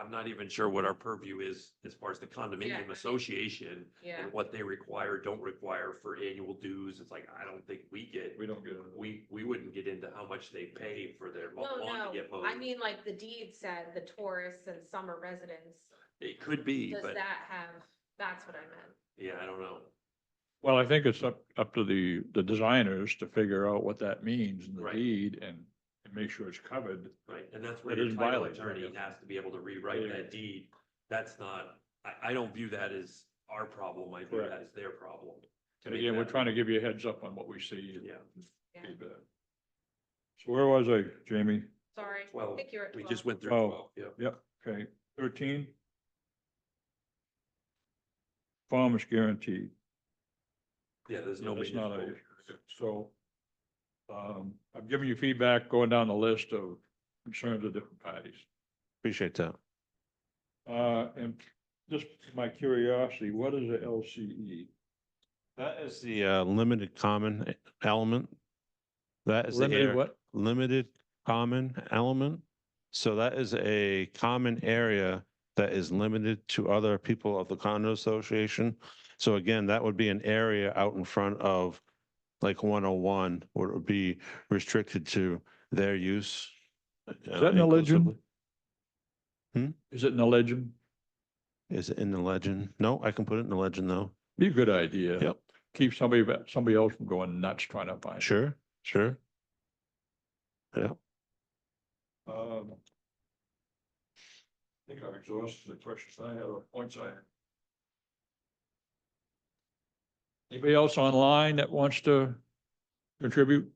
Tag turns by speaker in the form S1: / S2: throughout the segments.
S1: I'm not even sure what our purview is as far as the condominium
S2: Yeah.
S1: association
S2: Yeah,
S1: and what they require, don't require for annual dues. It's like, I don't think we get,
S3: We don't get into the
S1: we, we wouldn't get into how much they pay for their
S2: well,
S1: lawn to
S2: no,
S1: get mowed.
S2: I mean, like the deed said, the tourists and summer residents,
S1: It could be,
S2: does
S1: but
S2: that have, that's what I meant.
S1: yeah, I don't know.
S3: Well, I think it's up, up to the, the designers to figure out what that means in the
S1: Right.
S3: deed and, and make sure it's covered.
S1: Right, and that's where
S3: It
S1: your
S3: is
S1: title
S3: violated, I
S1: attorney
S3: guess.
S1: has to be able to rewrite
S3: Yeah.
S1: that deed. That's not, I, I don't view that as our problem, I view
S3: Correct.
S1: that as their problem. to
S3: And
S1: make
S3: again, we're
S1: that-
S3: trying to give you a heads up on what we see and
S1: Yeah,
S2: Yeah,
S3: feedback. So where was I, Jamie?
S2: sorry, I
S1: Well,
S2: think you're at
S1: we just
S2: twelve.
S1: went through
S3: Oh.
S1: twelve, yeah.
S3: Yep, okay, thirteen. Farmers guaranteed.
S1: Yeah, there's no.
S3: That's
S1: major
S3: not a,
S1: spoke.
S3: so. Um, I've given you feedback going down the list of concerns of different parties.
S4: Appreciate that.
S3: Uh, and just my curiosity, what is a E? LCE?
S4: That is the uh, limited common element. That is the
S3: Limited
S4: area,
S3: what?
S4: limited common element. So that is a common area that is limited to other people of the condo association. So again, that would be an area out in front of like one oh one, where it would be restricted to their use.
S3: Is that in the legend?
S4: Hmm?
S3: Is it in the legend?
S4: Is it in the legend? No, I can put it in the legend though.
S3: Be a good idea.
S4: Yep.
S3: Keep somebody, somebody else from going nuts trying to find. it.
S4: Sure, sure. Yeah.
S3: Um. I think I've exhausted the questions I had or points I had. Anybody else online that wants to contribute?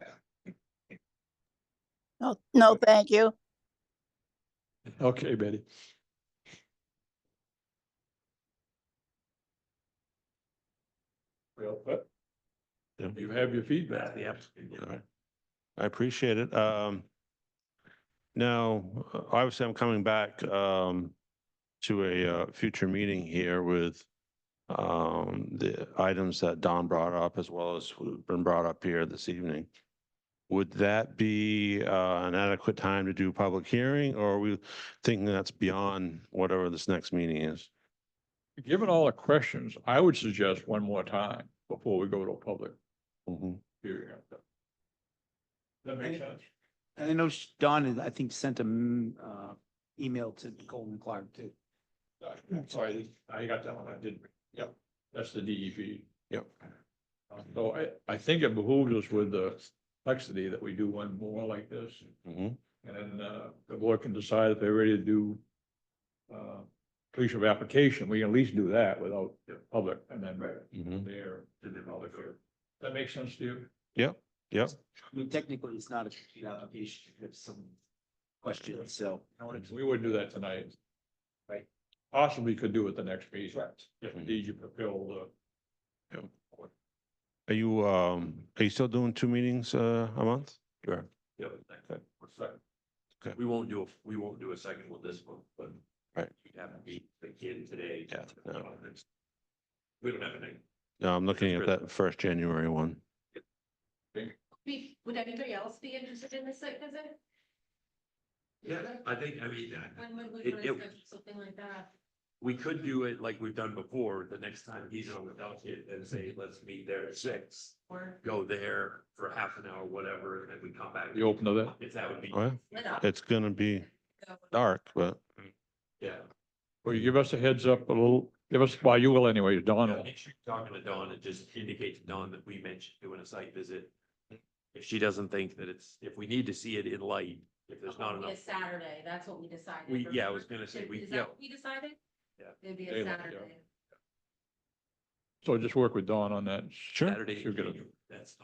S5: No, Oh, no, thank you.
S3: Okay, Betty. Well, but
S4: Yeah.
S3: you have your
S1: That's
S3: feedback.
S1: the applicant, yeah.
S4: All right. I appreciate it. Um, now, uh, obviously, I'm coming back, um, to a, uh, future meeting here with, um, the items that Don brought up as well as who've been brought up here this evening. Would that be, uh, an adequate time to do public hearing or are we thinking that's beyond whatever this next meeting is?
S3: Given all the questions, I would suggest one more time before we go to a public
S4: Mhm.
S3: hearing. That makes sense.
S6: And I know sh- Don, had, I think, sent a, mm, uh, email to Colin Clark too.
S3: Uh, I'm sorry, I got that one, I didn't, yep, that's the E DEP.
S4: Yep.
S3: Uh, So I, I think it behooves us with the complexity that we do one more like this,
S4: Mhm.
S3: and then, uh, the board can decide if they're ready to do uh, completion of application, we can at least do that without the public, and then
S4: Mhm.
S3: there, to the public. That makes sense to you?
S4: Yep.
S6: I mean, technically, it's not a complete application, you have some questions, so.
S3: We would do that tonight.
S6: Right.
S3: Possibly could do it the next meeting,
S6: Correct.
S3: if indeed you fulfill the.
S4: Are you, um, are you still doing two meetings, uh, a month? Sure.
S1: Yep.
S3: what's that?
S1: We won't do, a we won't do a second with this one, but.
S4: Right.
S1: You'd have to meet again today.
S4: Yeah, no.
S1: We don't have anything.
S4: No, I'm looking at
S1: Chris.
S4: that first January one.
S7: Be- Would anybody else be interested in this site visit?
S1: Yeah, I think, I mean, uh,
S7: When would
S1: It-
S7: we want
S1: it-
S7: to schedule something like that?
S1: we could do it like we've done before, the next time he's on the delegate and say, let's meet there at six.
S7: Or,
S1: Go there for half an hour, whatever, and then we come back.
S3: You open to that?
S1: If that would be,
S4: Well,
S7: lit up,
S4: it's gonna be
S7: so-
S4: dark, but
S1: yeah.
S3: Will you give us a heads up a little, give us, well, you will anyways, Don.
S1: Yeah, Make sure you're talking to Dawn and just indicate to Dawn that we mentioned doing a site visit. If she doesn't think that it's, if we need to see it in light, if there's not
S7: It'd be a
S1: enough.
S7: Saturday, that's what we decided.
S1: We, yeah, I
S7: remember?
S1: was gonna say, we,
S7: Is
S1: yeah,
S7: that what we decided?
S1: Yeah.
S7: It'd be a
S3: Daylight, yeah.
S7: Saturday.
S3: So just work with Dawn on that. Sure.
S1: Saturday,
S3: She'll get a,
S1: that's,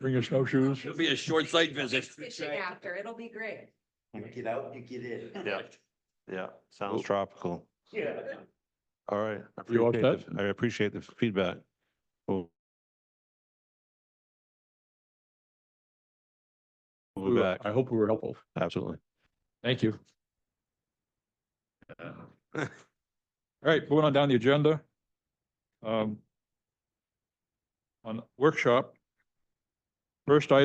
S3: bring your snowshoes.
S1: it'll be a short site visit.
S7: Fishing after, it'll be great.
S6: Get out, you get in.
S4: Yeah. yeah,
S3: Cool.
S4: sounds tropical.
S6: Yeah.
S4: All right. I
S3: You all
S4: appreciate
S3: set?
S4: the- I appreciate the feedback. We'll We'll be back,
S3: I hope we were helpful.
S4: absolutely.
S3: Thank you. Uh. All right, moving on down the agenda. Um, On workshop. First item